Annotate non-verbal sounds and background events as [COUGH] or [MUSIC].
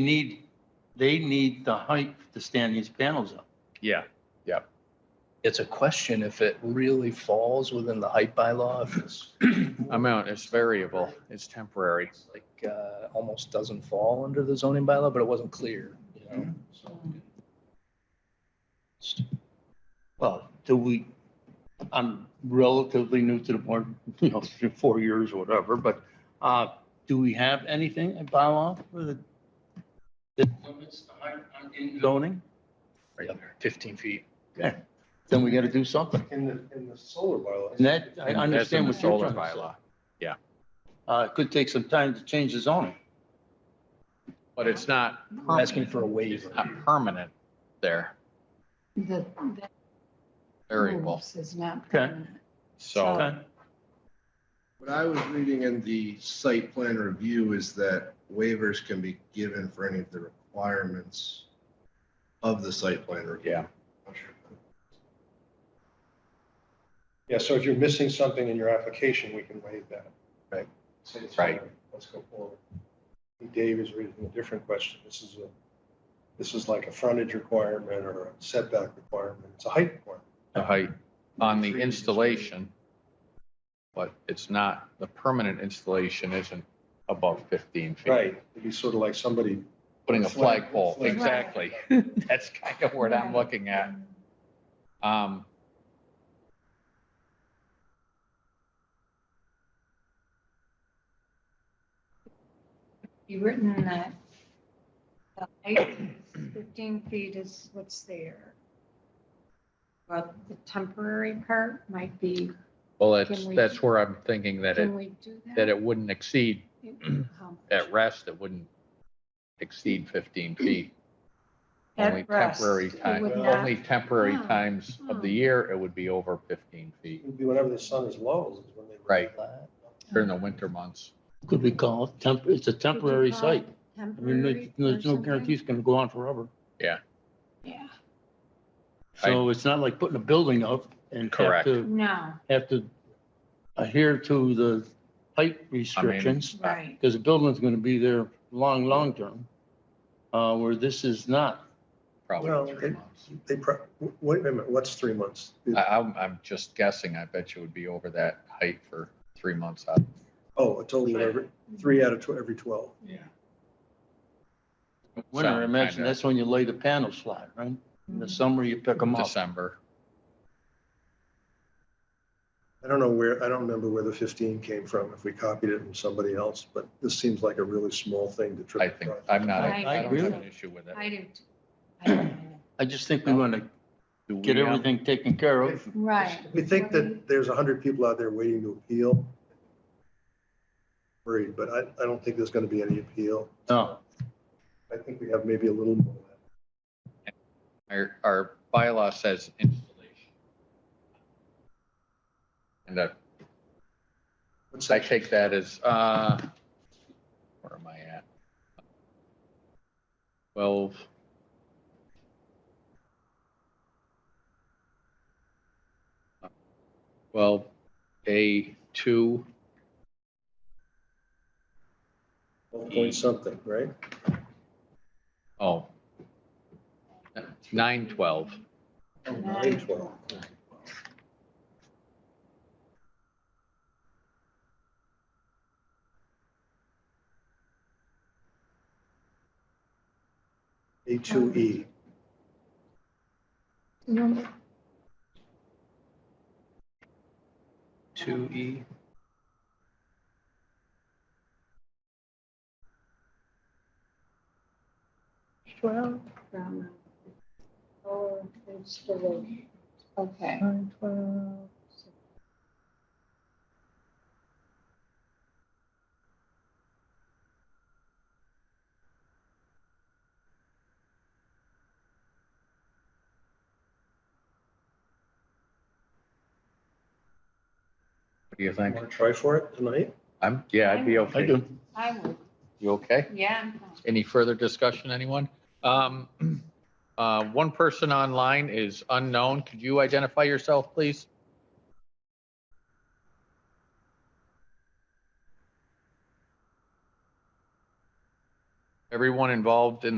need, they need the height to stand these panels up. Yeah, It's a question if it really falls within the height bylaw, if it's amount is variable, it's temporary. like, uh, almost doesn't fall under the zoning bylaw, but it wasn't clear, you know? so. Well, do we, I'm relatively new to the board, you know, three, four years or whatever, but uh, do we have anything in bylaw for the that limits the height on in zoning? Right there, fifteen feet. Then we got to do something. In the, in the solar bylaw. And that, I And that's in understand the what you're solar trying to say. bylaw. Uh, It could take some time to change the zoning. But it's not, We're Asking for a it's waiver. not permanent there, The, that variable, rules is not. Okay. permanent. so. Okay. What I was reading in the site plan review is that waivers can be given for any of the requirements of the site plan review. Yeah. Yeah, so if you're missing something in your application, we can waive that. Right. Say it's Right. fine, Let's go forward. Dave is reading a different question. This is a, this is like a frontage requirement or a setback requirement. It's a height requirement. The height on the installation. But it's not, the permanent installation isn't above fifteen feet. It'd be sort of like somebody, Putting a flagpole, Flag. exactly. That's kind of what I'm looking at. Um, You written that the height is fifteen feet is what's there. But the temporary part might be, well, that's, Can we- that's where I'm thinking that it, can we do that? that it wouldn't exceed, [CLEARS THROAT] How much? at rest, it wouldn't exceed fifteen feet. At Only rest, temporary it time, would only not- temporary Hmm. times of the Hmm. year, it would be over fifteen feet it'd be whenever the sun is low is when they. Right. during the Hmm. winter months. Could we call it temp, it's a Could you temporary call it site. I mean, Temporary there's- or there's no something? guarantee it's going to go on forever. Yeah, So it's not like putting a building up and have Correct. to, no, have to adhere to the height restrictions. right. because the building's gonna be there long, long term, uh, where this is not. Probably Well, three it- months. They, pro- wait a minute, what's three months? I, I'm, I'm just guessing. I bet you would be over that height for three months out. Oh, a total of every, three out of tw- every 12. Yeah. Winter, I imagine that's when you lay the panels flat, right? Mm-hmm. In the summer, you pick them up. December. I don't know where, I don't remember where the 15 came from, if we copied it from somebody else, but this seems like a really small thing to trip. I think, across. I'm not, I I don't agree have with an issue with it. I do. too. I don't know. I just think we wanna Do get we, um, everything taken care of. Right. We think that there's 100 people out there waiting to appeal. Worried, but I, I don't think there's going to be any appeal. No, I think we have maybe a little more. Our, our bylaw says installation. And that What's I that? take that as, uh, where am I at? Twelve. Twelve, A two, One Point something, right? oh. Nine twelve, Oh, Nine, 912. A2E. No, Two E. Twelve from. Oh, it's the way. Okay. what do you think? Want to try for it tonight? I'm, yeah, I'd be I okay. do. I would, You okay? yeah. I'm fine. Any further discussion, anyone? Um, [CLEARS THROAT] uh, one person online is unknown. Could you identify yourself, please? everyone involved in